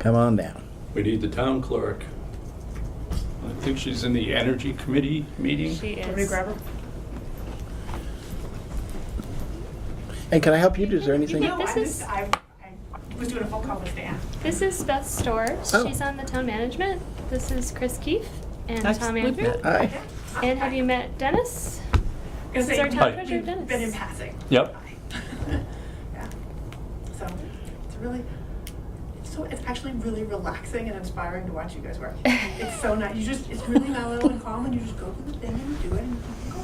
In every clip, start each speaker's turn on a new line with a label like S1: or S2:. S1: Come on down.
S2: We need the town clerk. I think she's in the energy committee meeting.
S3: She
S4: Want me to
S3: is.
S4: grab her?
S1: And can I help you? Is there anything?
S4: No, I
S3: This is-
S4: just, I, I was doing a phone call with Dan.
S3: This is Beth Storr.
S1: Oh.
S3: She's on the town management. This is Chris Keefe and
S5: Nice
S3: Tom
S5: to meet
S3: Andrew.
S5: you.
S1: Hi.
S3: And have you met Dennis?
S4: This
S3: is our
S2: Hi.
S3: town treasurer, Dennis.
S4: Been in passing.
S2: Yep.
S4: Yeah. So, it's really, it's so, it's actually really relaxing and inspiring to watch you guys work. It's so nice, you just, it's really mellow and calm, and you just go through the thing and you do it, and you go,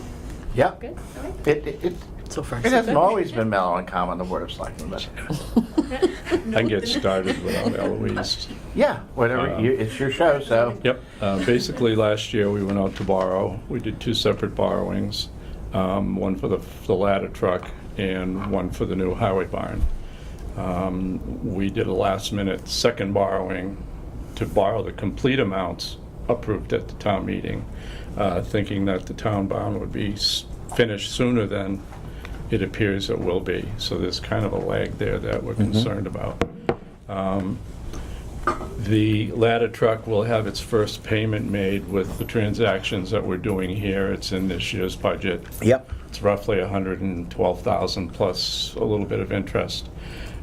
S1: Yeah.
S3: Good.
S4: okay?
S1: It, it, it,
S5: So far,
S1: it hasn't always been mellow and calm on the Board of Selectmen, but
S2: I can get started without Eloise.
S1: yeah, whatever.
S2: Uh,
S1: you, it's your show, so.
S2: Yep, uh, basically, last year, we went out to borrow. We did two separate borrowings, um, one for the the ladder truck and one for the new highway barn. Um, We did a last-minute second borrowing to borrow the complete amounts approved at the town meeting, uh, thinking that the town bond would be s- finished sooner than it appears it will be. So there's kind of a lag there that we're concerned about. Um, the ladder truck will have its first payment made with the transactions that we're doing here. It's in this year's budget.
S1: Yep.
S2: It's roughly 112,000 plus a little bit of interest.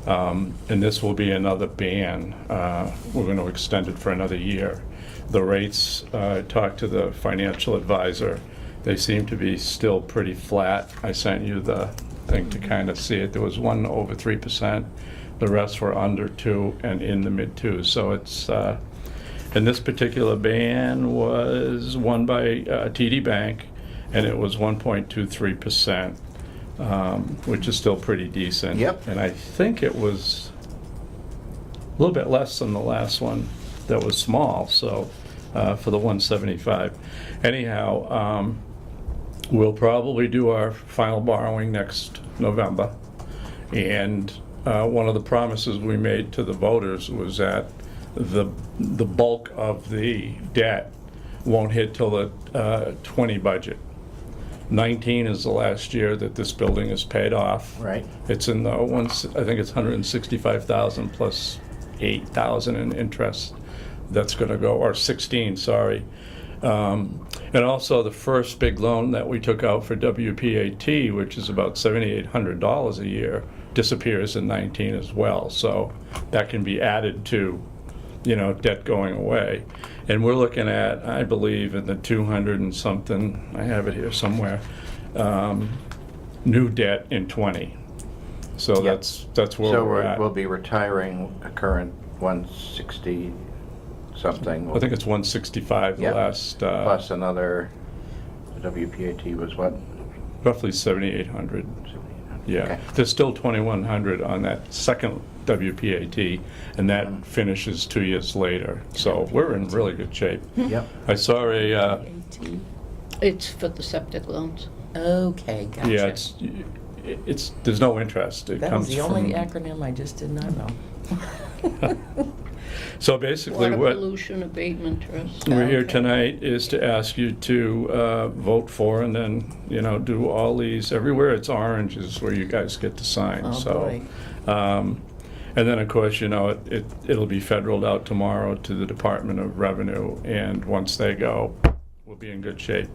S2: Um, And this will be another ban. Uh, We're going to extend it for another year. The rates, uh, I talked to the financial advisor, they seem to be still pretty flat. I sent you the thing to kind of see it. There was one over 3%. The rest were under 2 and in the mid 2s. So it's, uh, and this particular ban was won by uh, TD Bank, and it was 1.23%, um, which is still pretty decent.
S1: Yep.
S2: And I think it was a little bit less than the last one that was small, so uh, for the 175. Anyhow, um, we'll probably do our final borrowing next November. And uh, one of the promises we made to the voters was that the, the bulk of the debt won't hit till the uh, 20 budget. 19 is the last year that this building is paid off.
S1: Right.
S2: It's in the once, I think it's 165,000 plus 8,000 in interest that's going to go, or 16, sorry. Um, And also, the first big loan that we took out for WPAT, which is about $7,800 a year, disappears in 19 as well. So that can be added to, you know, debt going away. And we're looking at, I believe, in the 200 and something, I have it here somewhere, um, new debt in 20. So that's, that's where
S1: So
S2: we're
S1: we're-
S2: at.
S1: we'll be retiring a current 160 something.
S2: I think it's 165, the
S1: Yep.
S2: last, uh,
S1: Plus another, WPAT was what?
S2: roughly 7,800. Yeah,
S1: Okay.
S2: there's still 2,100 on that second WPAT, and
S1: Mm-hmm.
S2: that finishes two years later. So we're in really good shape.
S1: Yep.
S2: I saw a, uh,
S5: It's for the septic loans.
S6: Okay, gotcha.
S2: yeah, it's, it's, there's no interest. It
S6: That was
S2: comes
S6: the only
S2: from.
S6: acronym I just did not know.
S2: So basically
S5: Water
S2: what.
S5: pollution abatement trust.
S2: we're here
S6: Okay.
S2: tonight is to ask you to uh, vote for and then, you know, do all these, everywhere it's orange is where you guys get to sign,
S6: Oh,
S2: so.
S6: boy.
S2: um, And then, of course, you know, it- it, it'll be federaled out tomorrow to the Department of Revenue, and once they go, we'll be in good shape.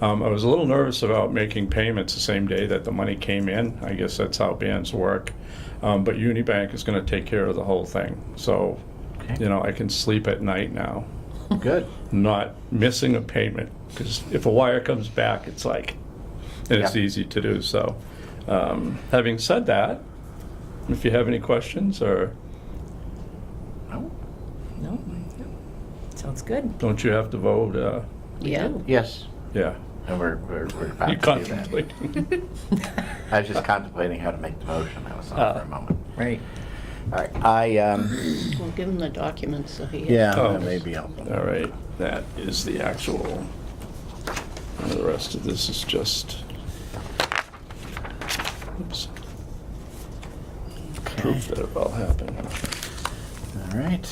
S2: Um, I was a little nervous about making payments the same day that the money came in. I guess that's how bands work. Um, But Unibank is gonna take care of the whole thing, so,
S1: Okay.
S2: you know, I can sleep at night now
S1: Good.
S2: not missing a payment, because if a wire comes back, it's like, and it's
S1: Yeah.
S2: easy to do, so. um, Having said that, if you have any questions, or
S1: Oh,
S6: No? Sounds good.
S2: don't you have to vote, uh,
S5: Yeah.
S1: Yes,
S2: yeah,
S1: and we're, we're we're about
S2: you
S1: to do that.
S2: contemplate.
S1: I was just contemplating how to make the motion. I was on
S2: Oh.
S1: for a moment.
S6: Right.
S1: All right, I, um,
S5: Well, give him the documents that he has.
S1: yeah,
S2: Oh.
S1: that may be helpful.
S2: All right, that is the actual, and the rest of this is just, oops,
S1: Okay.
S2: proof that it all happened.
S1: All right.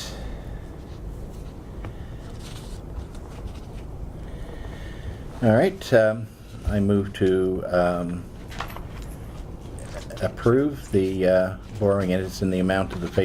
S1: All right, um, I move to um, approve the uh, borrowing, and it's in the amount of the face